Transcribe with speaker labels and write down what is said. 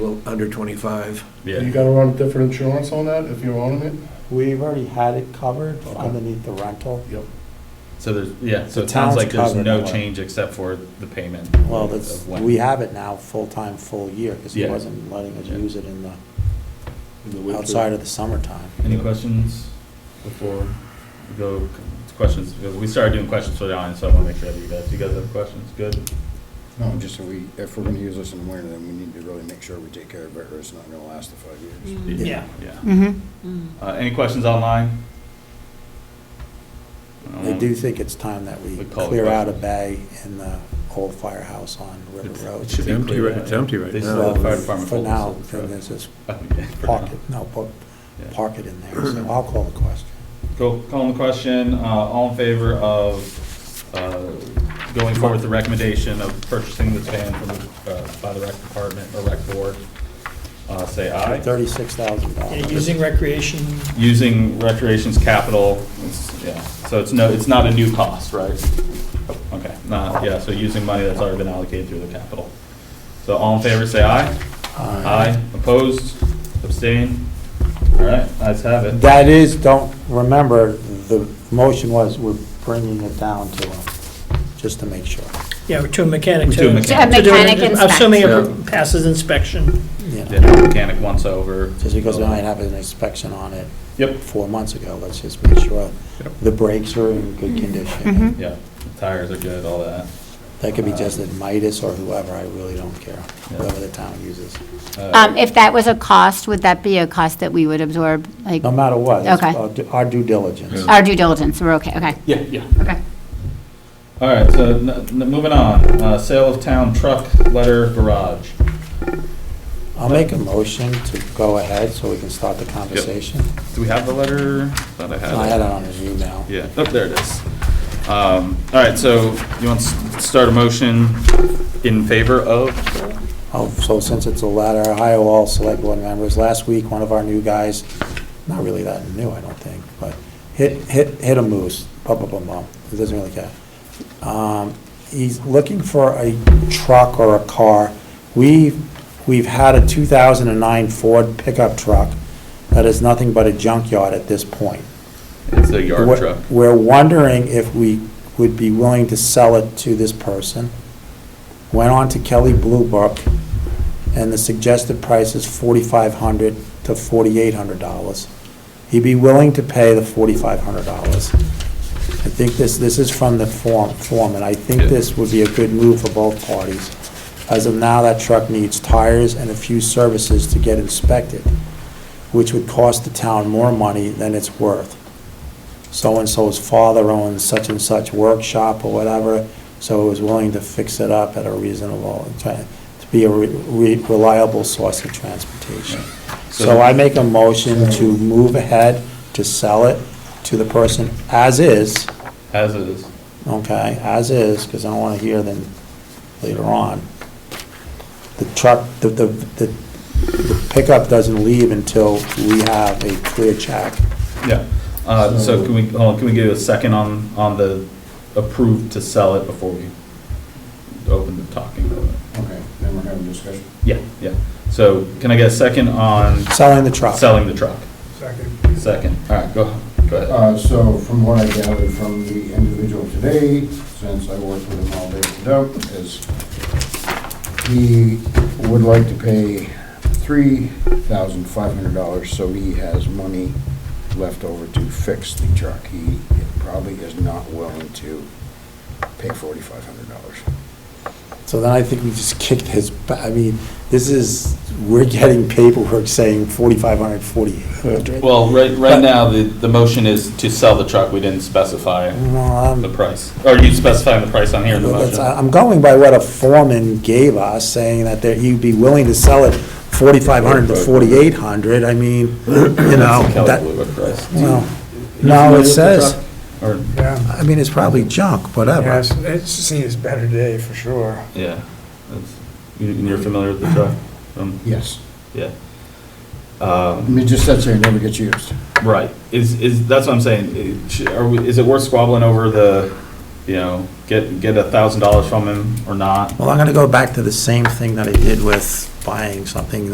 Speaker 1: twen- under 25.
Speaker 2: You gotta run different insurance on that if you're owning it?
Speaker 3: We've already had it covered
Speaker 2: Okay.
Speaker 3: underneath the rental.
Speaker 2: Yep.
Speaker 4: So there's, yeah, so
Speaker 3: The
Speaker 4: it sounds
Speaker 3: town's
Speaker 4: like there's
Speaker 3: covered
Speaker 4: no
Speaker 3: that way.
Speaker 4: change except for the payment.
Speaker 3: Well,
Speaker 4: of
Speaker 3: that's,
Speaker 4: when.
Speaker 3: we have it now, full-time, full year, because he
Speaker 4: Yeah.
Speaker 3: wasn't letting us
Speaker 4: Yeah.
Speaker 3: use it in the, outside of the summertime.
Speaker 4: Any questions before we go, questions, because we started doing questions for the audience, so I want to make sure that you guys, you guys have questions, good?
Speaker 5: No, just if we, if we're gonna use this in the winter, then we need to really make sure we take care of it, or it's not gonna last the five years.
Speaker 3: Yeah.
Speaker 4: Yeah.
Speaker 3: Mm-hmm.
Speaker 6: Mm.
Speaker 4: Uh, any questions online?
Speaker 3: I do think it's time that we
Speaker 4: Um, We call it
Speaker 3: clear out a
Speaker 4: questions.
Speaker 3: bay in the old firehouse on River Road.
Speaker 4: It should be
Speaker 1: empty
Speaker 4: clear.
Speaker 1: right- it's empty right
Speaker 4: They
Speaker 1: now.
Speaker 4: still have fire department.
Speaker 3: For
Speaker 4: folders
Speaker 3: now,
Speaker 4: of the
Speaker 3: then
Speaker 4: truck.
Speaker 3: there's this
Speaker 4: Oh, yeah, for now.
Speaker 3: pocket, no, put,
Speaker 4: Yeah.
Speaker 3: park it in there, so I'll call the question.
Speaker 4: Go, call on the question, uh, all in favor of, uh, going forward with the recommendation of purchasing this van from, the, uh, by the rec department or rec board, uh, say aye.
Speaker 3: Thirty-six thousand
Speaker 7: Yeah,
Speaker 3: dollars.
Speaker 7: using recreation,
Speaker 4: Using recreation's capital, it's, yeah, so it's no, it's not a new cost, right? Okay, not, yeah, so using money that's already been allocated through the capital. So all in favor, say aye. Aye, opposed, abstain, all right, ayes have it.
Speaker 3: That is, don't, remember, the motion was we're bringing it down to them, just to make sure,
Speaker 7: yeah, to a mechanic.
Speaker 4: To a mechanic. To a
Speaker 7: to do it,
Speaker 6: mechanic inspect.
Speaker 7: Assuming
Speaker 1: Yeah.
Speaker 7: it passes inspection.
Speaker 3: you know.
Speaker 4: Did a mechanic once over.
Speaker 3: Just because we might have an inspection on it
Speaker 4: Yep,
Speaker 3: four months ago, let's just make sure
Speaker 4: Yep.
Speaker 3: the brakes are in good
Speaker 7: Mm-hmm.
Speaker 3: condition.
Speaker 4: yeah, tires are good, all that.
Speaker 3: That could be just at Midas or whoever, I really don't care, whoever the town uses.
Speaker 4: Uh,
Speaker 6: Um, if that was a cost, would that be a cost that we would absorb, like,
Speaker 3: No matter what, it's
Speaker 6: Okay.
Speaker 3: our du- our due diligence.
Speaker 6: our due diligence, we're okay, okay,
Speaker 4: Yeah, yeah.
Speaker 6: okay.
Speaker 4: All right, so n- n- moving on, uh, sale of town truck, letter, garage.
Speaker 3: I'll make a motion to go ahead so we can start the conversation.
Speaker 4: Do we have the letter? Thought I had it.
Speaker 3: I had it on his email.
Speaker 4: Yeah, oh, there it is. Um, all right, so you want to start a motion in favor of?
Speaker 3: Oh, so since it's a letter, hi all select board members, last week, one of our new guys, not really that new, I don't think, but hit, hit, hit a moose, bum, bum, bum, bum, he doesn't really care. Um, he's looking for a truck or a car. We, we've had a two thousand and nine Ford pickup truck that is nothing but a junkyard at this point.
Speaker 4: It's a yard
Speaker 3: We're-
Speaker 4: truck.
Speaker 3: We're wondering if we would be willing to sell it to this person. Went on to Kelly Blue Book, and the suggested price is forty-five hundred to forty-eight hundred dollars. He'd be willing to pay the forty-five hundred dollars. I think this, this is from the form, form, and I think
Speaker 4: Yeah.
Speaker 3: this would be a good move for both parties. As of now, that truck needs tires and a few services to get inspected, which would cost the town more money than it's worth so-and-so's father owns such and such workshop or whatever, so he was willing to fix it up at a reasonable, to to be a re- re- reliable source of transportation. So I make a motion to move ahead, to sell it to the person as is,
Speaker 4: As is.
Speaker 3: okay, as is, because I don't want to hear them later on. The truck, the, the, the the pickup doesn't leave until we have a clear check.
Speaker 4: Yeah, uh, so can we, hold on, can we give a second on, on the approved to sell it before we open the talking?
Speaker 5: Okay, then we're having discussion.
Speaker 4: Yeah, yeah. So can I get a second on
Speaker 3: Selling the truck.
Speaker 4: selling the truck?
Speaker 7: Second.
Speaker 4: Second, all right, go, go ahead.
Speaker 5: Uh, so from what I gathered from the individual today, since I worked with him all day and out, is he would like to pay three thousand five hundred dollars, so he has money left over to fix the truck. He probably is not willing to pay forty-five hundred dollars.
Speaker 3: So then I think we just kicked his, ba- I mean, this is, we're getting paperwork saying 4,500, 4,800.
Speaker 4: Well, right, right now, the, the motion is to sell the truck, we didn't specify
Speaker 3: No, I'm-
Speaker 4: the price. Or you specifying the price on here in the
Speaker 3: Um, that's-
Speaker 4: motion?
Speaker 3: I'm going by what a foreman gave us, saying that there- he'd be willing to sell it 4,500 to 4,800. I mean, you know,
Speaker 4: Kelly
Speaker 3: uh, that,
Speaker 4: Blue Book price.
Speaker 3: well, no, it says,
Speaker 4: Or,
Speaker 8: Yeah,
Speaker 3: I mean, it's probably junk,
Speaker 8: yeah,
Speaker 3: whatever.
Speaker 8: it's, it's seen its better day for sure.
Speaker 4: yeah, that's- you- and you're familiar with the truck? Um,
Speaker 5: Yes.
Speaker 4: Yeah. Um,
Speaker 5: I mean, just that's there, it never gets used.
Speaker 4: Right, is, is, that's what I'm saying, It- sh- are we, is it worth squabbling over the, you know, get, get a thousand dollars from him or not?
Speaker 3: Well, I'm going to go back to the same thing that I did with buying something